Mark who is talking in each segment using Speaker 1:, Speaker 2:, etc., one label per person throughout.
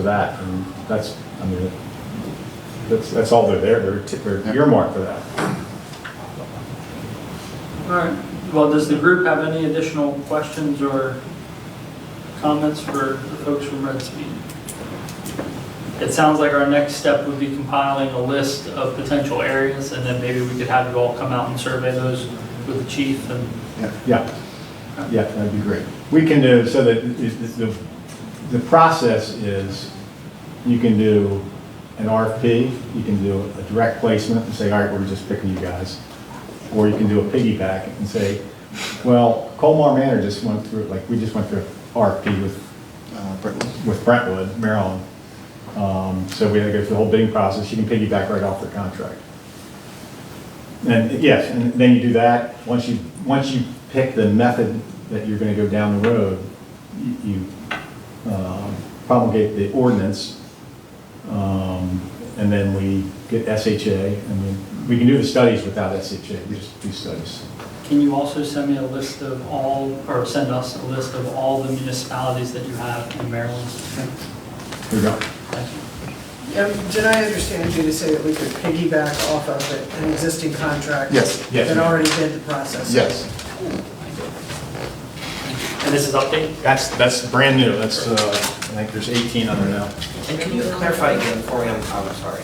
Speaker 1: for that, and that's, I mean, that's, that's all they're there, they're, t- they're earmarked for that.
Speaker 2: All right, well, does the group have any additional questions or comments for the folks from Red Speed? It sounds like our next step would be compiling a list of potential areas, and then maybe we could have you all come out and survey those with the chief and,
Speaker 1: Yeah, yeah, that'd be great. We can do, so that, is- the, the process is, you can do an RFP, you can do a direct placement and say, all right, we're just picking you guys. Or you can do a piggyback and say, well, Colmar Manor just went through, like, we just went through RFP with
Speaker 3: uh, Brentwood.
Speaker 1: with Brentwood, Maryland. Um, So we had to go through the whole bidding process, you can piggyback right off their contract. And yes, and then you do that, once you, once you pick the method that you're gonna go down the road, you- you um, promulgate the ordinance, um, and then we get SHA, and then, we can do the studies without SHA, we just do studies.
Speaker 2: can you also send me a list of all, or send us a list of all the municipalities that you have in Maryland?
Speaker 1: Here we go.
Speaker 2: Thank you.
Speaker 4: Um, Did I understand you to say that we could piggyback off of an existing contract?
Speaker 3: Yes.
Speaker 1: Yes.
Speaker 4: That already did the process?
Speaker 3: Yes,
Speaker 2: And this is update?
Speaker 1: That's, that's brand new, that's, uh, I think there's 18 on there now.
Speaker 5: And can you clarify again for me, I'm, I'm sorry,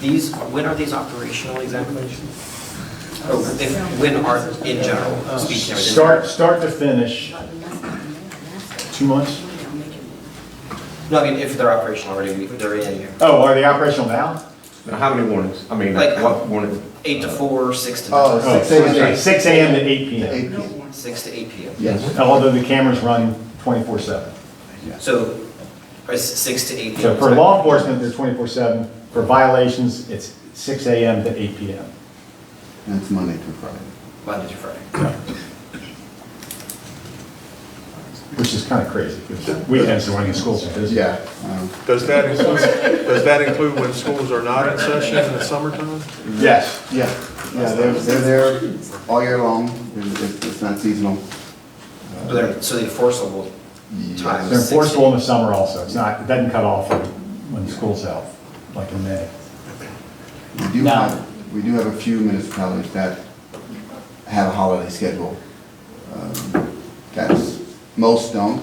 Speaker 5: these, when are these operational exactly? Or if- When are, in general, speaking? of-
Speaker 1: Start, start to finish, two months?
Speaker 5: No, I mean, if they're operational already, if they're in here,
Speaker 1: Oh, are they operational now?
Speaker 6: Now, How many warnings? I mean,
Speaker 5: Like-
Speaker 6: like, what warning?
Speaker 5: eight to four, six to
Speaker 3: Oh,
Speaker 1: Oh,
Speaker 5: nine,
Speaker 3: Six AM.
Speaker 1: sorry, Six AM to eight
Speaker 3: the
Speaker 1: PM,
Speaker 3: AP,
Speaker 5: six to eight PM.
Speaker 3: yes,
Speaker 1: although the cameras run twenty-four seven.
Speaker 5: So, or s- six to eight
Speaker 1: So
Speaker 5: PM.
Speaker 1: for law enforcement, they're twenty-four seven, for violations, it's six AM to eight PM.
Speaker 3: that's Monday through Friday.
Speaker 5: Monday through Friday.
Speaker 1: Which is kind of crazy, because weekends are running schools and business.
Speaker 3: Yeah, um,
Speaker 7: Does that include, does that include when schools are not in session in the summertime?
Speaker 1: Yes,
Speaker 3: yeah, yeah, they're, they're there all year long, It's- it's it's not seasonal.
Speaker 5: So they're, so the enforceable time
Speaker 1: they're
Speaker 5: is six
Speaker 1: enforceable
Speaker 5: to
Speaker 1: in the summer also, it's not, it doesn't cut off when, when school's out, like in May.
Speaker 3: We do
Speaker 2: Now-
Speaker 3: have, we do have a few municipalities that have a holiday schedule. Um, That's, most don't,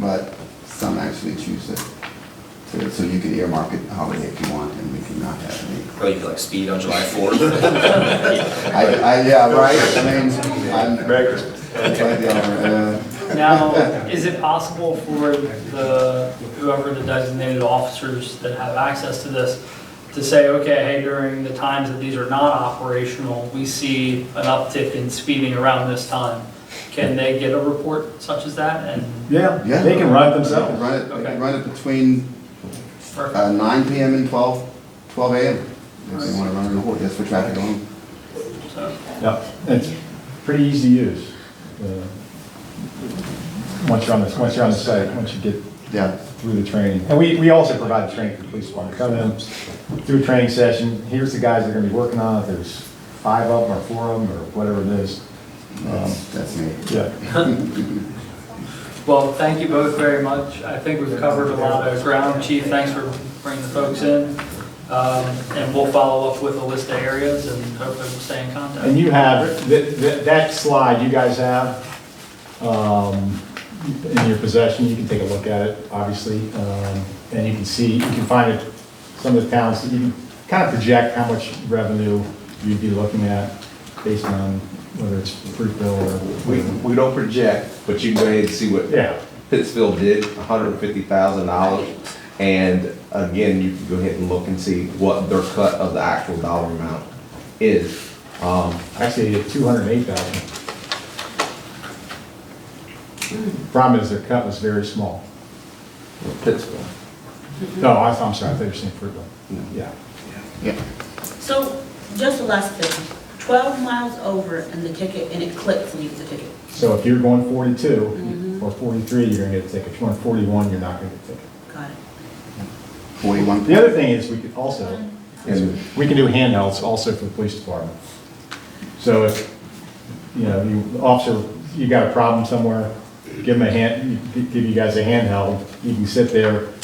Speaker 3: but some actually choose it. So- So you can earmark it holiday if you want, and we can not have any.
Speaker 5: Or you could like speed on July fourth.
Speaker 3: I, I, yeah, right, I mean, I'm. Like the other, uh,
Speaker 2: Now, is it possible for the, whoever the designated officers that have access to this, to say, okay, hey, during the times that these are not operational, we see an uptick in speeding around this time? Can they get a report such as that and?
Speaker 1: Yeah,
Speaker 3: Yeah.
Speaker 1: they can run it
Speaker 3: They can
Speaker 1: themselves.
Speaker 3: Run it, they
Speaker 2: Okay.
Speaker 3: can run it between uh, nine PM and 12 12 AM. If they wanna run it, oh, that's for traffic alone.
Speaker 2: So,
Speaker 1: Yep, it's pretty easy to use. uh, Once you're on the, once you're on the site, once you get
Speaker 3: Yeah,
Speaker 1: through the training. And we, we also provide training for the police department. Come in, do a training session, here's the guys that are gonna be working on it, there's five of them or four of them or whatever it is. Um,
Speaker 3: that's, that's me.
Speaker 1: Yeah,
Speaker 2: Well, thank you both very much. I think we've covered a lot of ground. Chief, thanks for bringing the folks in. Um, And we'll follow up with a list of areas and hopefully we'll stay in contact.
Speaker 1: and you have, that, that- that slide you guys have um, in your possession, you can take a look at it, obviously. um, And you can see, you can find it, some of the towns, you can kind of project how much revenue you'd be looking at based on whether it's Fruitville or.
Speaker 6: We, we don't project, but you can go ahead and see what
Speaker 1: Yeah.
Speaker 6: Pittsfield did, hundred and fifty thousand dollars. And again, you can go ahead and look and see what their cut of the actual dollar amount is. Um,
Speaker 1: Actually, two hundred and eight thousand. Problem is, their cut was very small.
Speaker 6: Pittsfield.
Speaker 1: No, I- I'm sorry, I thought you were saying Fruitville.
Speaker 6: No.
Speaker 1: Yeah.
Speaker 3: Yeah.
Speaker 8: So, just the last thing, 12 miles over and the ticket, and it clicks and you get the ticket.
Speaker 1: So if you're going forty-two or forty-three, you're gonna get a ticket. If you're going forty-one, you're not gonna get a ticket.
Speaker 8: Got it.
Speaker 3: 41.
Speaker 1: The other thing is, we could also,
Speaker 6: And
Speaker 1: we can do handhelds also for the police department. So if, you know, you, officer, you got a problem somewhere, give them a hand, give you guys a handheld, you can sit there,